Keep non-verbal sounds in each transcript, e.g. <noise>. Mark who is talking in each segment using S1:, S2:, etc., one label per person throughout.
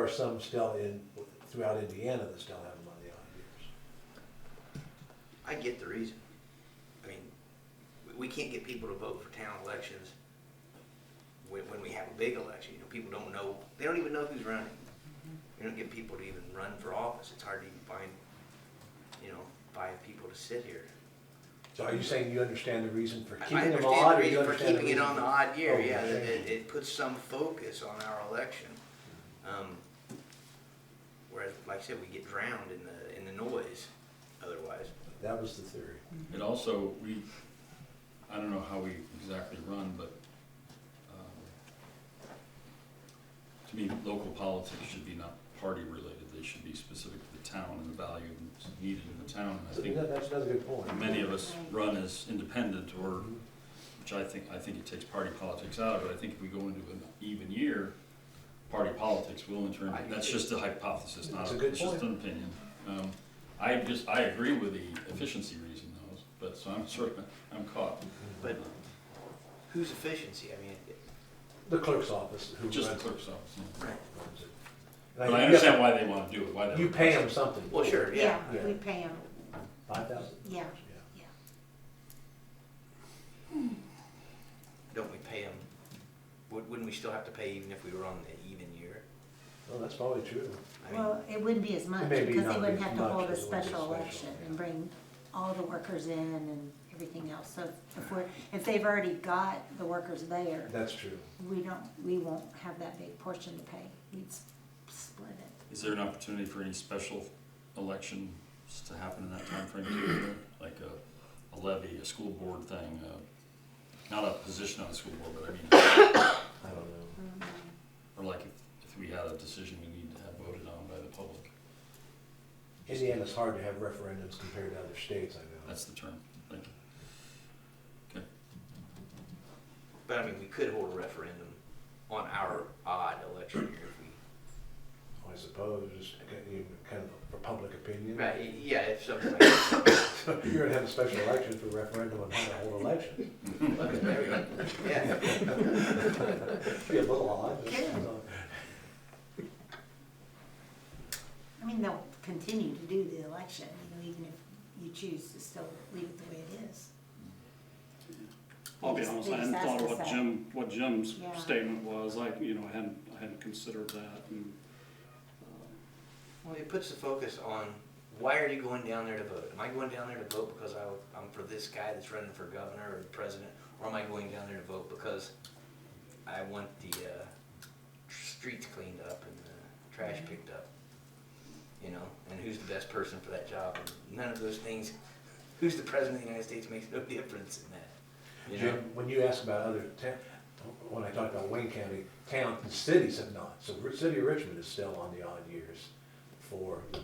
S1: There are some still in, throughout Indiana that still have them on the odd years.
S2: I get the reason. I mean, we- we can't get people to vote for town elections when, when we have a big election, you know, people don't know, they don't even know who's running. You don't get people to even run for office, it's hard to even find, you know, five people to sit here.
S1: So are you saying you understand the reason for
S2: I- I
S1: keeping them
S2: understand
S1: odd? or
S2: the
S1: you
S2: reason for
S1: understand the
S2: keeping it on the
S1: reason-
S2: odd
S1: Oh,
S2: year,
S1: you're
S2: yeah, that
S1: saying-
S2: it, it puts some focus on our election. Um, Whereas, like I said, we get drowned in the, in the noise otherwise.
S1: That was the theory.
S3: It also, we, I don't know how we exactly run, but, um, to me, local politics should be not party related, they should be specific to the town and the value that's needed in the town.
S1: So
S3: And I
S1: that- That's another good
S3: think
S1: point.
S3: many of us run as independent or, which I think, I think it takes party politics out of it. I think if we go into an even year, party politics will in turn,
S2: I do
S3: that's
S2: too.
S3: just a hypothesis, not,
S1: That's a
S3: a-
S1: good
S3: it's just an opinion. Um, I just, I agree with the efficiency reason though, but, so I'm sort of, I'm caught.
S2: But whose efficiency? I mean, it-
S1: The clerk's office who runs
S3: Just the
S1: runs it.
S3: clerk's office. yeah.
S1: And
S3: But I
S1: you have to-
S3: understand why they wanna do it, why they.
S1: You pay them something.
S2: well, sure,
S4: Yeah,
S2: yeah.
S1: Yeah.
S4: we pay them,
S1: Five thousand?
S4: yeah,
S1: Yeah.
S4: yeah.
S2: Don't we pay them? Wouldn't we still have to pay even if we were on the even year?
S1: Well, that's probably true.
S2: I mean,
S4: Well, it wouldn't be as much,
S1: Maybe
S4: because
S1: not
S4: they wouldn't
S1: as
S4: have to
S1: much
S4: hold
S1: as it
S4: a
S1: would be
S4: special
S1: special,
S4: election and
S1: yeah.
S4: bring all the workers in and everything else, so if we're, if they've already got the workers there,
S1: That's true.
S4: we don't, we won't have that big portion to pay, we'd s- split it.
S3: Is there an opportunity for any special elections to happen in that timeframe too? Like a, a levy, a school board thing, uh, not a position on the school board, but I mean,
S1: I don't know.
S4: Mm-hmm.
S3: Or like if, if we had a decision we need to have voted on by the public,
S1: Indiana's hard to have referendums compared to other states, I know.
S3: that's the term, thank you.
S2: but I mean, we could hold a referendum on our odd election year if
S1: I suppose, kind of for public opinion.
S2: we. Right, yeah, if something like that.
S1: <laughs> You're gonna have a special election for referendum on how to hold elections.
S4: <laughs>
S2: <laughs> There we go. Yeah,
S1: Be a little odd. but-
S4: Yeah. I mean, they'll continue to do the election, you know, even if you choose to still leave it the way it is.
S5: I'll be
S4: They just-
S5: honest,
S4: they
S5: I hadn't
S4: just
S5: thought
S4: asked
S5: of
S4: us
S5: what
S4: that.
S5: Jim, what Jim's
S4: Yeah.
S5: statement was, I, you know, I hadn't, I hadn't considered that, and, uh,
S2: well, it puts the focus on, why are you going down there to vote? Am I going down there to vote because I, I'm for this guy that's running for governor or president? Or am I going down there to vote because I want the, uh, streets cleaned up and the trash picked up? You know, and who's the best person for that job? And none of those things, who's the president of the United States makes no <laughs> difference in that. You know?
S1: Jim, when you ask about other town, when I talk about Wayne County, towns and cities have not. So Ri- city of Richmond is still on the odd years for the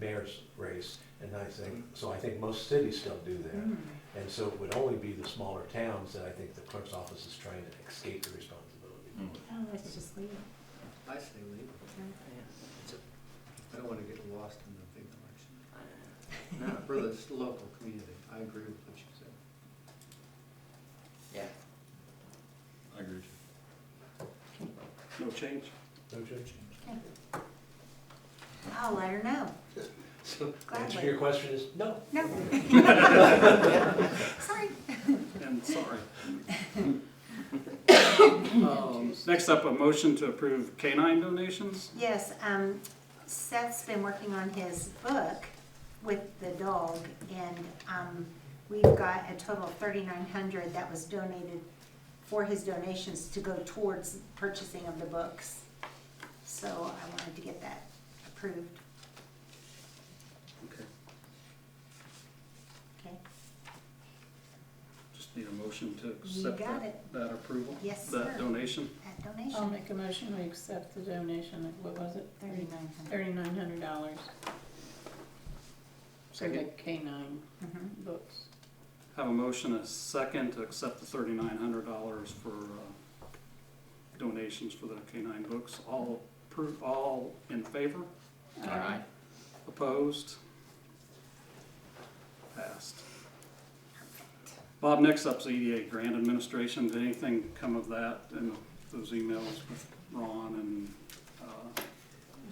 S1: mayor's race. And I think, so I think most cities still do
S4: Mm-hmm.
S1: that. And so it would only be the smaller towns that I think the clerk's office is trying to escape the responsibility.
S3: Mm.
S4: Oh, let's just leave it.
S6: I say leave it.
S2: It's a-
S6: I don't want to get lost in the big election.
S2: No,
S6: For this local community, I agree with what you said.
S2: yeah.
S3: I agree.
S5: no change.
S1: No change.
S4: Okay. I'll let her know,
S1: <laughs> So, answer to your
S4: gladly.
S1: question is, no.
S4: No. Sorry.
S5: And sorry. Um, Next up, a motion to approve canine donations.
S4: Yes, um, Seth's been working on his book with the dog, and, um, we've got a total of thirty-nine hundred that was donated for his donations to go towards purchasing of the books. So I wanted to get that approved,
S5: Okay,
S4: okay?
S5: just need a motion to
S4: You
S5: accept
S4: got
S5: that,
S4: it,
S5: that approval?
S4: Yes, sir.
S5: That donation?
S4: that
S7: I'll
S4: donation,
S7: make a motion, we accept the donation of, what was it?
S4: thirty-nine hundred.
S7: Thirty-nine hundred dollars. For the K-9
S4: Mhm.
S7: books.
S5: Have a motion, a second, to accept the thirty-nine hundred dollars for uh, donations for the canine books. All appro, all in favor?
S3: Aye.
S5: Opposed? Passed. Bob, next up's E EDA grant administration. Did anything come of that and uh, those emails with Ron and